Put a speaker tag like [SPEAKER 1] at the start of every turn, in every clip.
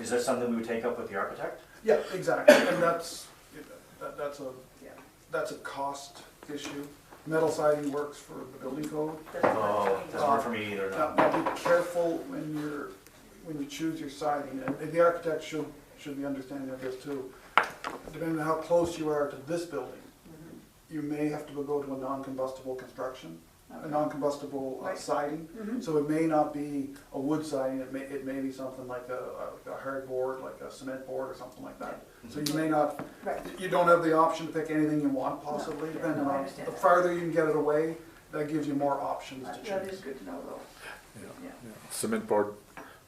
[SPEAKER 1] Is that something we would take up with the architect?
[SPEAKER 2] Yeah, exactly, and that's, that, that's a,
[SPEAKER 3] Yeah.
[SPEAKER 2] that's a cost issue. Metal siding works for the building code.
[SPEAKER 3] Doesn't work
[SPEAKER 1] Oh,
[SPEAKER 3] for me.
[SPEAKER 1] doesn't work for me either,
[SPEAKER 2] Now,
[SPEAKER 1] no.
[SPEAKER 2] now be careful when you're, when you choose your siding, and and the architect should, should be understanding of this too. Depending on how close you are to this building, you may have to go to a non-combustible construction, a non-combustible uh,
[SPEAKER 3] Right.
[SPEAKER 2] siding.
[SPEAKER 3] Mhm.
[SPEAKER 2] So it may not be a wood siding, it may, it may be something like a, a- a hard board, like a cement board or something like that. So you may not,
[SPEAKER 3] Right,
[SPEAKER 2] you don't have the option to pick anything you want possibly,
[SPEAKER 3] No,
[SPEAKER 2] depending
[SPEAKER 3] no, I
[SPEAKER 2] on,
[SPEAKER 3] understand
[SPEAKER 2] the
[SPEAKER 3] that.
[SPEAKER 2] farther you can get it away, that gives you more options to
[SPEAKER 3] That-
[SPEAKER 2] choose.
[SPEAKER 3] that is good to know though.
[SPEAKER 4] Yeah,
[SPEAKER 3] Yeah.
[SPEAKER 4] yeah. Cement board,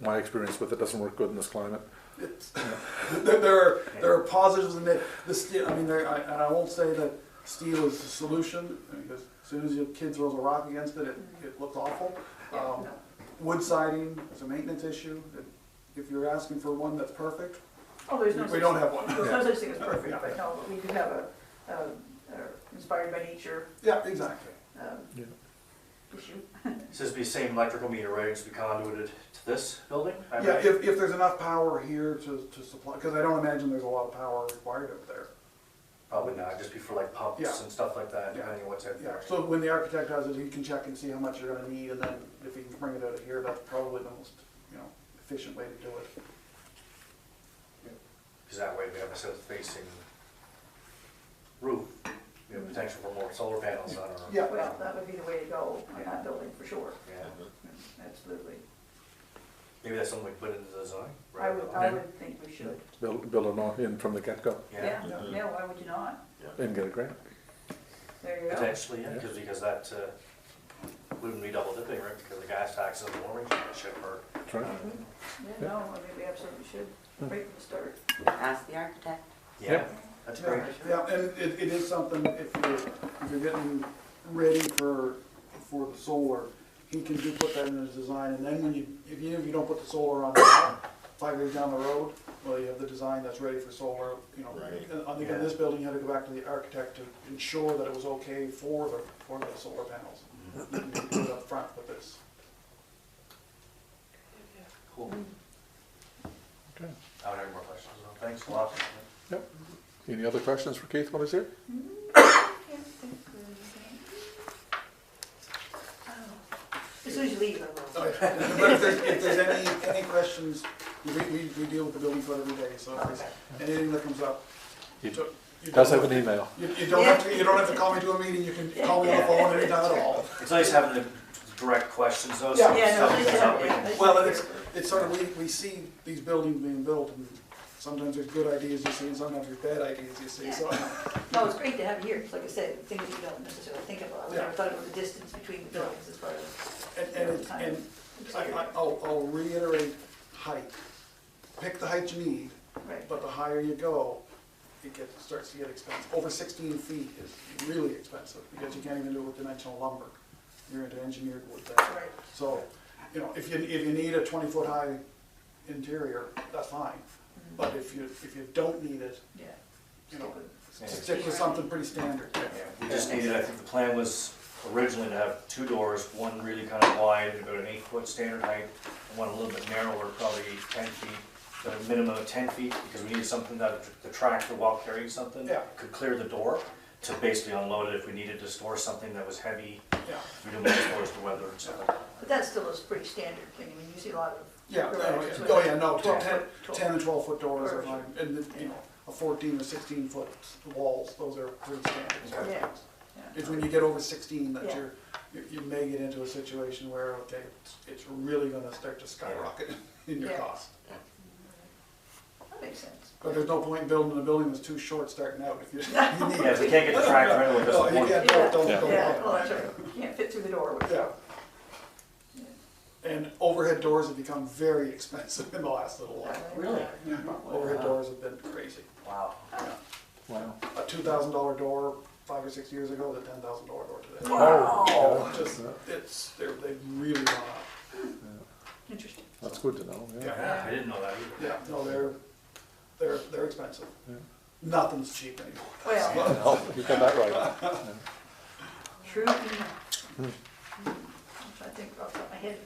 [SPEAKER 4] my experience with it doesn't work good in this climate.
[SPEAKER 2] It's- there, there are there are positives in it. The steel, I mean, there, I, and I won't say that steel is the solution because as soon as your kid throws a rock against it, it, it looks awful.
[SPEAKER 3] Mm-hmm. Yeah,
[SPEAKER 2] Um,
[SPEAKER 3] no.
[SPEAKER 2] wood siding is a maintenance issue. If you're asking for one that's perfect,
[SPEAKER 3] Oh, there's no
[SPEAKER 2] we
[SPEAKER 3] such-
[SPEAKER 2] don't have one.
[SPEAKER 3] There's no such thing as
[SPEAKER 2] Yeah.
[SPEAKER 3] perfect, but no, we do have a, um, uh, inspired by nature,
[SPEAKER 2] yeah, exactly.
[SPEAKER 3] um,
[SPEAKER 4] Yeah.
[SPEAKER 3] issue.
[SPEAKER 1] So this would be the same electrical meter, right, it's be conduited to this building? I
[SPEAKER 2] Yeah,
[SPEAKER 1] imagine?
[SPEAKER 2] if, if there's enough power here to, to supply, because I don't imagine there's a lot of power required up there.
[SPEAKER 1] Probably not, just be for like pumps
[SPEAKER 2] Yeah.
[SPEAKER 1] and stuff like that,
[SPEAKER 2] Yeah.
[SPEAKER 1] depending on what's in
[SPEAKER 2] Yeah,
[SPEAKER 1] there.
[SPEAKER 2] so when the architect does it, he can check and see how much you're gonna need, and then if he can bring it out of here, that's probably the most, you know, efficient way to do it.
[SPEAKER 1] Because that way we have a south facing roof, we have potential for more solar panels on our.
[SPEAKER 2] Yeah.
[SPEAKER 3] Well, that would be the way to go on
[SPEAKER 1] Yeah.
[SPEAKER 3] that building, for sure,
[SPEAKER 1] Yeah.
[SPEAKER 3] absolutely.
[SPEAKER 1] Maybe that's something we put into the design.
[SPEAKER 3] I
[SPEAKER 1] right?
[SPEAKER 3] would, I would think we should.
[SPEAKER 4] Build, build an all in from the get-go
[SPEAKER 1] Yeah,
[SPEAKER 3] Yeah, yeah, why would you not?
[SPEAKER 4] and get a grant.
[SPEAKER 3] There you go.
[SPEAKER 1] potentially, yeah, because, because that, uh, wouldn't be double dipping, right, because the gas taxes and the warming ship are.
[SPEAKER 4] That's right.
[SPEAKER 3] Yeah, no, I mean, we absolutely should,
[SPEAKER 2] Hmm.
[SPEAKER 3] right from the start.
[SPEAKER 5] Ask the architect.
[SPEAKER 1] Yeah,
[SPEAKER 4] Yep.
[SPEAKER 1] that's
[SPEAKER 2] Yeah,
[SPEAKER 1] great.
[SPEAKER 2] yeah, and it, it is something, if you're, if you're getting ready for, for the solar, he can do put that in his design, and then when you, if you, if you don't put the solar on now, five years down the road, well, you have the design that's ready for solar, you know.
[SPEAKER 6] Right.
[SPEAKER 2] And I think in this building, you had to go back to the architect to ensure that it was okay for the, for the solar panels. You do it up front with this.
[SPEAKER 1] Cool.
[SPEAKER 4] Okay.
[SPEAKER 1] I don't have any more questions, so thanks a lot.
[SPEAKER 4] Yep. Any other questions for Keith while he's here?
[SPEAKER 3] As soon as you leave, I will.
[SPEAKER 2] But if there's, if there's any, any questions, we, we, we deal with the building code every day, so if there's anything that comes up.
[SPEAKER 4] He
[SPEAKER 2] so you
[SPEAKER 4] does
[SPEAKER 2] don't-
[SPEAKER 4] have an email.
[SPEAKER 2] You, you don't have to, you don't have to call me to a meeting, you can call me on the phone anytime at all.
[SPEAKER 1] It's nice having the direct questions though. so
[SPEAKER 2] Yeah.
[SPEAKER 1] if
[SPEAKER 3] Yeah, no,
[SPEAKER 1] something
[SPEAKER 3] they
[SPEAKER 1] comes
[SPEAKER 3] should,
[SPEAKER 1] up, we
[SPEAKER 3] yeah,
[SPEAKER 1] can-
[SPEAKER 3] they should
[SPEAKER 2] Well,
[SPEAKER 3] be
[SPEAKER 2] it's,
[SPEAKER 3] here.
[SPEAKER 2] it's sort of, we, we see these buildings being built, and sometimes there's good ideas you see, and sometimes there's bad ideas you see, so.
[SPEAKER 3] No, it's great to have you here, 'cause like I said, things you don't necessarily think about, I would
[SPEAKER 2] Yeah.
[SPEAKER 3] have thought about the distance between the buildings as far as.
[SPEAKER 2] And, and, it's- and uh, I, I- I'll, I'll reiterate, height. Pick the height you need,
[SPEAKER 3] Right.
[SPEAKER 2] but the higher you go, it gets, starts to get expensive. Over sixteen feet is really expensive, because you can't even do it with dimensional lumber. You're into engineered wood there.
[SPEAKER 3] Right.
[SPEAKER 2] So, you know, if you, if you need a twenty-foot high interior, that's fine. But if you, if you don't need it,
[SPEAKER 3] Yeah.
[SPEAKER 2] you know,
[SPEAKER 1] Yeah.
[SPEAKER 2] stick with something pretty standard.
[SPEAKER 1] Yeah, We just needed, I think the plan was originally to have two doors, one really kind of wide, about an eight foot standard height, and one a little bit narrower, probably ten feet, but a minimum of ten feet, because we needed something that the tractor while carrying something
[SPEAKER 2] Yeah.
[SPEAKER 1] could clear the door to basically unload it if we needed to store something that was heavy,
[SPEAKER 2] Yeah,
[SPEAKER 1] we didn't want to store it to weather and stuff like that.
[SPEAKER 3] But that still is pretty standard thing, I mean, you see a lot of.
[SPEAKER 2] yeah,
[SPEAKER 3] garages
[SPEAKER 2] oh,
[SPEAKER 3] with
[SPEAKER 2] yeah, oh, yeah, no, ten
[SPEAKER 3] 12
[SPEAKER 2] ten
[SPEAKER 3] foot-
[SPEAKER 2] 10 and twelve foot doors are fine,
[SPEAKER 3] Perfect.
[SPEAKER 2] and, the- you know, a fourteen or sixteen foot walls, those are pretty standard.
[SPEAKER 3] Yeah.
[SPEAKER 2] It's when you get over sixteen that
[SPEAKER 3] Yeah.
[SPEAKER 2] you're, you- you may get into a situation where, okay, it's, it's really gonna start to skyrocket in your
[SPEAKER 3] Yeah.
[SPEAKER 2] cost.
[SPEAKER 3] That makes sense.
[SPEAKER 2] But there's no point in building a building that's too short starting out if you, you need
[SPEAKER 1] Yeah, if we can't get the tractor anyway, it
[SPEAKER 2] No,
[SPEAKER 1] doesn't
[SPEAKER 2] you
[SPEAKER 1] work.
[SPEAKER 2] can't, don't, don't,
[SPEAKER 4] Yeah.
[SPEAKER 2] don't.
[SPEAKER 3] Yeah, well, that's right, you can't fit through the doorway.
[SPEAKER 2] Yeah. And overhead doors have become very expensive in the last little while.
[SPEAKER 3] Really?
[SPEAKER 2] Overhead doors have been crazy.
[SPEAKER 1] Wow.
[SPEAKER 4] Wow.
[SPEAKER 2] A two thousand dollar door five or six years ago, the ten thousand dollar door today.
[SPEAKER 4] Wow.
[SPEAKER 2] Yeah, Just, it's, they're, they've really gone up.
[SPEAKER 3] Interesting.
[SPEAKER 4] That's good to know, yeah.
[SPEAKER 2] Yeah,
[SPEAKER 1] Yeah, I didn't know that either.
[SPEAKER 2] yeah, no, they're, they're, they're expensive.
[SPEAKER 4] Yeah.
[SPEAKER 2] Nothing's cheap anymore.
[SPEAKER 3] Well,
[SPEAKER 4] Oh, you got that right.
[SPEAKER 3] true, enough. Hmm, which I think off the top of my head,